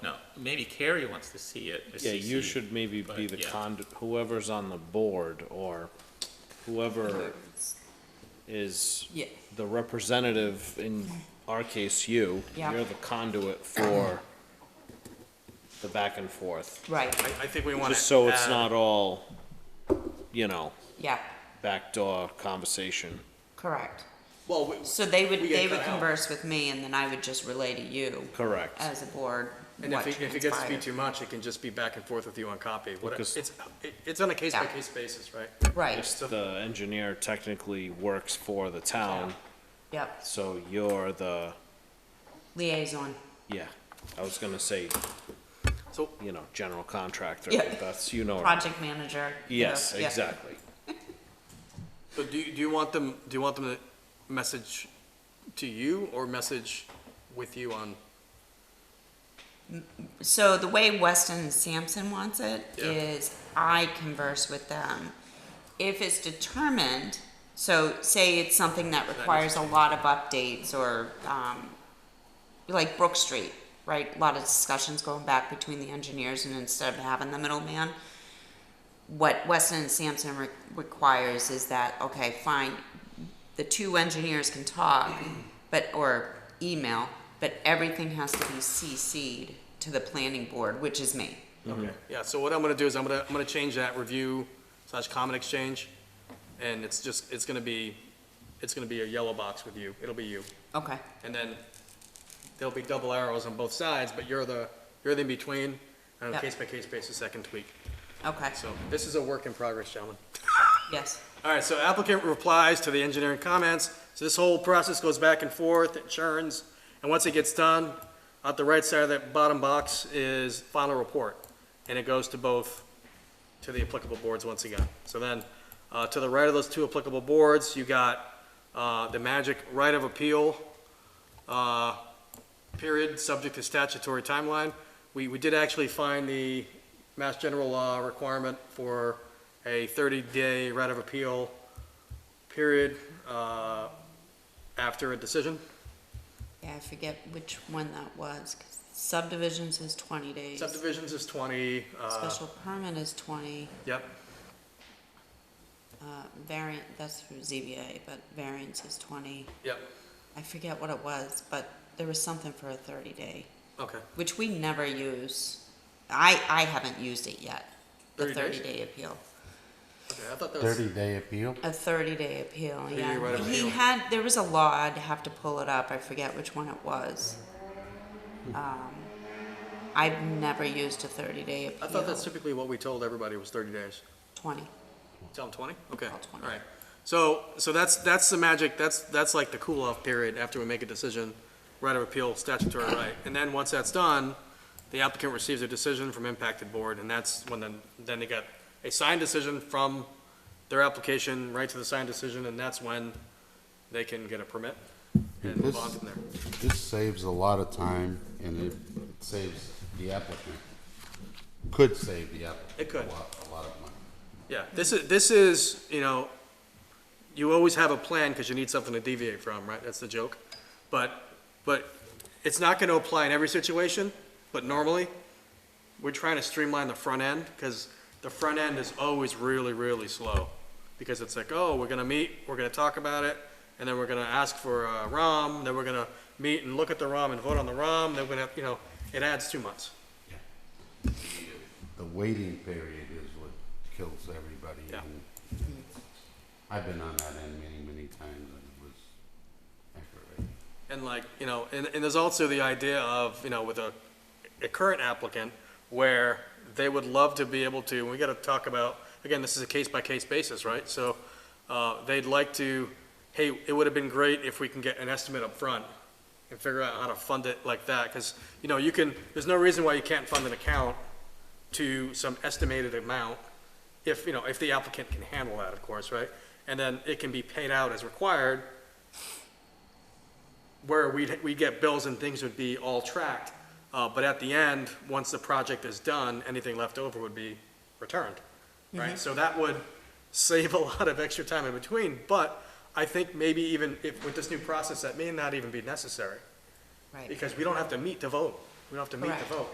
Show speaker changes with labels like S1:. S1: maybe Carrie wants to see it. the
S2: Yeah, you
S1: CC.
S2: should maybe
S1: but
S2: be the
S1: yeah.
S2: cond, whoever's on the board or whoever is
S3: Yeah.
S2: the representative, in our case, you.
S3: Yeah.
S2: You're the conduit for the back and forth.
S3: Right,
S4: I, I think we want to.
S2: Just so it's not all, you know,
S3: yeah,
S2: backdoor conversation.
S3: correct.
S4: Well, we-
S3: So they would,
S4: We get
S3: they would
S4: cut out.
S3: converse with me and then I would just relay to you
S2: Correct.
S3: as a board
S4: and if
S3: what
S4: it, if it gets to be
S3: transpired.
S4: too much, it can just be back and forth with you on copy. What-
S2: Because-
S4: It's, it- it's on a case-by-case basis, right?
S3: Right,
S2: If the engineer technically works for the town,
S3: yep,
S2: so you're the,
S3: liaison,
S2: yeah, I was gonna say,
S4: So-
S2: you know, general contractor,
S3: Yeah.
S2: but that's, you know.
S3: project manager. you know,
S2: Yes,
S3: yeah.
S2: exactly.
S4: So do you, do you want them, do you want them to message to you or message with you on?
S3: So the way Weston and Sampson wants it
S4: Yeah.
S3: is I converse with them. If it's determined, so say it's something that requires a lot of updates or, um, like Brook Street, right? A lot of discussions going back between the engineers and instead of having the middleman, what Weston and Sampson re- requires is that, okay, fine, the two engineers can talk, but, or email, but everything has to be CC'd to the planning board, which is me.
S4: Okay. Yeah, so what I'm gonna do is I'm gonna, I'm gonna change that review slash comment exchange. And it's just, it's gonna be, it's gonna be a yellow box with you. It'll be you.
S3: Okay,
S4: And then there'll be double arrows on both sides, but you're the, you're the in-between. And on a
S3: Yep.
S4: case-by-case basis, that can tweak.
S3: okay,
S4: So this is a work in progress, gentlemen.
S3: yes,
S4: All right, so applicant replies to the engineering comments. So this whole process goes back and forth, it churns, and once it gets done, at the right side of that bottom box is final report. And it goes to both, to the applicable boards once again. So then, uh, to the right of those two applicable boards, you got, uh, the magic right of appeal, uh, period, subject to statutory timeline. We, we did actually find the Mass General Law requirement for a 30-day right of appeal period uh, after a decision.
S3: yeah, I forget which one that was, 'cause subdivisions is twenty days,
S4: Subdivisions is 20, uh,
S3: special permit is twenty,
S4: yep,
S3: uh, variant, that's for ZBA, but variance is twenty.
S4: yep,
S3: I forget what it was, but there was something for a thirty day,
S4: okay.
S3: which we never use. I, I haven't used it yet, the
S4: 30 days?
S3: thirty day appeal.
S4: Okay, I thought that was,
S5: Thirty-day appeal?
S3: A thirty-day appeal,
S4: Thirty-day
S3: yeah.
S4: right of
S3: He
S4: appeal.
S3: had, there was a law, I'd have to pull it up, I forget which one it was.
S4: Hmm.
S3: Um, I've never used a thirty-day appeal.
S4: I thought that's typically what we told everybody was 30 days.
S3: Twenty,
S4: Tell them 20? Okay,
S3: Tell 20.
S4: all right. So, so that's, that's the magic, that's, that's like the cool-off period after we make a decision, right of appeal, statutory right. And then, once that's done, the applicant receives a decision from impacted board, and that's when then, then they get a signed decision from their application, right to the signed decision, and that's when they can get a permit and move on from there.
S5: This saves a lot of time and it saves the applicant, could save the applicant.
S4: It could.
S5: A lot, a lot of money.
S4: Yeah, this is, this is, you know, you always have a plan because you need something to deviate from, right? That's the joke. But, but it's not going to apply in every situation, but normally, we're trying to streamline the front end because the front end is always really, really slow. Because it's like, oh, we're going to meet, we're going to talk about it, and then we're going to ask for a ROM, then we're going to meet and look at the ROM and vote on the ROM, then we're going to, you know, it adds two months.
S5: The waiting period is what kills everybody.
S4: Yeah.
S5: and I've been on that end many, many times and it was aggravating.
S4: And like, you know, and, and there's also the idea of, you know, with a, a current applicant where they would love to be able to, and we gotta talk about, again, this is a case-by-case basis, right? So, uh, they'd like to, hey, it would have been great if we can get an estimate up front and figure out how to fund it like that, cause, you know, you can, there's no reason why you can't fund an account to some estimated amount if, you know, if the applicant can handle that, of course, right? And then it can be paid out as required, where we'd, we get bills and things would be all tracked. Uh, but at the end, once the project is done, anything left over would be returned, right? So that would save a lot of extra time in between, but I think maybe even if, with this new process, that may not even be necessary,
S3: right.
S4: because we don't have to meet to vote. We don't have to meet
S3: Correct.
S4: to vote.